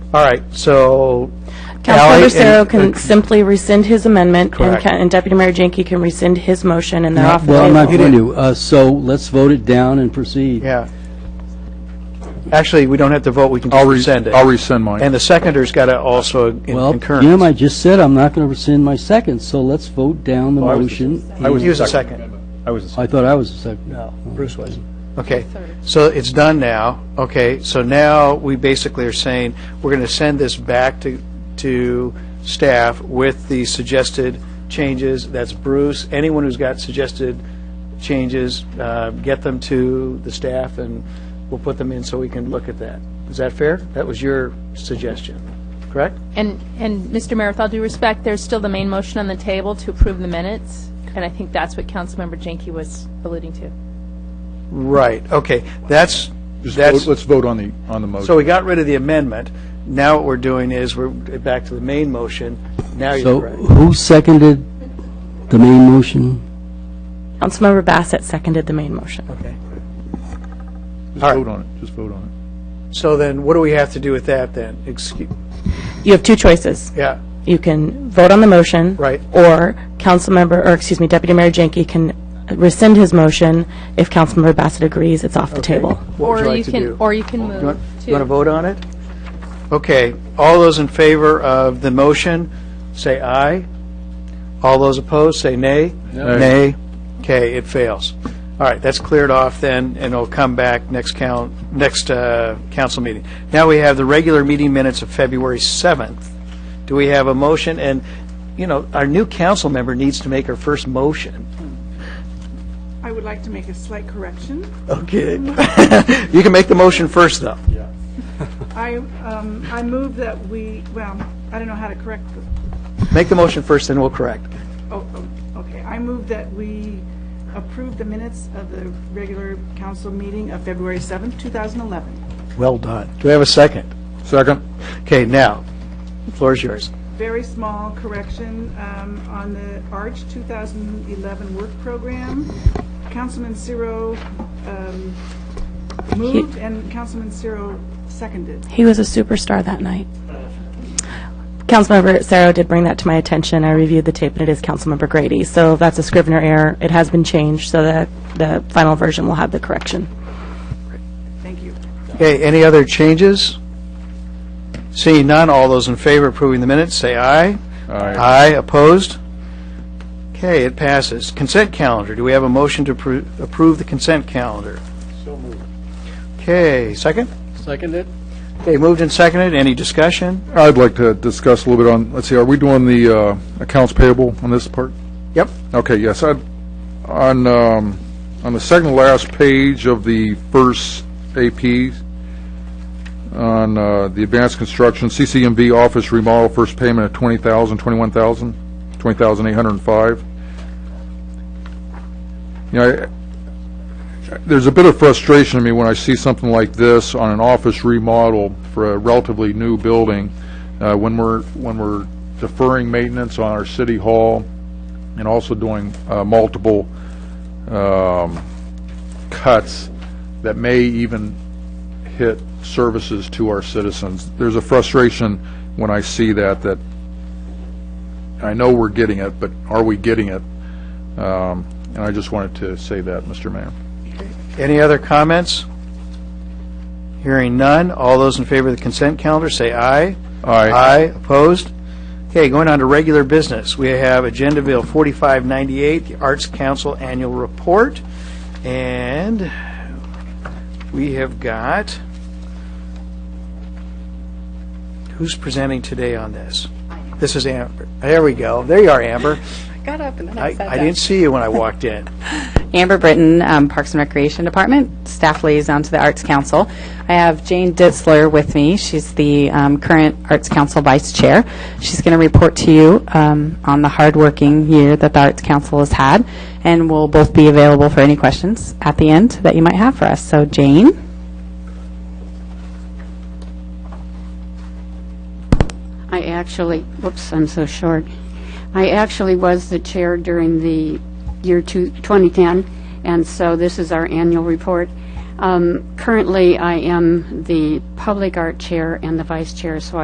All right, so Ally Councilmember and- Cerro can simply rescind his amendment, and Correct. ca- and Deputy Mayor Jenkins can rescind his motion, and they're off the Well, I'm not table. going to, Uh, so let's vote it down and proceed. uh, Yeah. Actually, we don't have to vote, we can I'll just re- rescind it. I'll rescind mine. And the seconder's got to also in- Well, concur. Jim, I just said I'm not going to rescind my second, so let's vote down the I was- motion. I was He was the a second. second. I was, I thought I was the second. No, Bruce wasn't. Okay, so it's done now. Okay, so now we basically are saying, we're going to send this back to, to staff with the suggested changes. That's Bruce. Anyone who's got suggested changes, uh, get them to the staff, and we'll put them in so we can look at that. Is that fair? That was your suggestion, correct? And, and Mr. Mayor, with all due respect, there's still the main motion on the table to approve the minutes, and I think that's what Councilmember Jenke was alluding to. Right, okay. That's, just that's... vote- let's vote on the, on the So motion. we got rid of the amendment. Now what we're doing is we're back to the main motion. Now you're So correct. who seconded the main motion? Councilmember Bassett seconded the main motion. Okay. Just vote on it, just vote on So then what do we have to do with that then? Excuse, You have two choices. yeah, You can vote on the motion. Right. Or Councilmember, or excuse me, Deputy Mayor Jenkins can rescind his motion. If Councilmember Bassett agrees, it's off the table. what would you like to can, do? Or you can You want move to... to vote on it? Okay, all those in favor of the motion, say aye. All those opposed, say nay. Nay. Okay, it fails. All right, that's cleared off then, and it'll come back next count, next uh, council meeting. Now we have the regular meeting minutes of February 7th. Do we have a motion? And, you know, our new council member needs to make her first motion. I would like to make a slight correction. Okay. You can make the motion first, though. I, um, I move that we, well, I don't know how to correct this. Make the motion first, then we'll correct. Oh, oh, okay, I move that we approve the minutes of the regular council meeting of February 7th, 2011. Well done. Do we have a second? it. Second? Okay, now, the floor is yours. Very small correction um, on the ARCH 2011 work program. Councilman Ciro um, moved and Councilman Ciro seconded. He was a superstar that night. Councilmember Cerro did bring that to my attention. I reviewed the tape, and it is Councilmember Grady. So that's a Scrivener error. It has been changed, so that the final version will have the correction. Thank you. Okay, any other changes? Seeing none, all those in favor approving the minutes, say aye. Aye. opposed? Okay, it passes. Consent calendar, do we have a motion to appro- approve the consent calendar? So moved. Okay, second? Seconded. Okay, moved and seconded, any discussion? I'd like to discuss a little bit on, let's see, are we doing the uh, accounts payable on this part? Yep. Okay, yes, I'd- on, um, on the second to last page of the first AP, on uh, the advanced construction, CCMV office remodel, first payment of 20000 21000 20805 You know, I- there's a bit of frustration in me when I see something like this on an office remodel for a relatively new building, uh, when we're, when we're deferring maintenance on our city hall, and also doing uh, multiple um, cuts that may even hit services to our citizens. There's a frustration when I see that, that I know we're getting it, but are we getting it? Um, And I just wanted to say that, Mr. Mayor. Any other comments? Hearing none, all those in favor of the consent calendar, say aye. Aye. opposed? Okay, going on to regular business. We have Agenda Bill 4598, the Arts Council Annual Report, and we have got, who's presenting today on this? This is Amber. There we go. There you are, Amber. Got up and then I I sat I didn't see you when I walked in. Amber Britton, um, Parks and Recreation Department, staff liaison to the Arts Council. I have Jane Ditzler with me. She's the um, current Arts Council Vice Chair. She's going to report to you um, on the hardworking year that the Arts Council has had, and we'll both be available for any questions at the end that you might have for us. So, Jane? I actually, whoops, I'm so short. I actually was the chair during the year two- 2010, and so this is our annual report. Um, Currently, I am the public art chair and the vice chair, so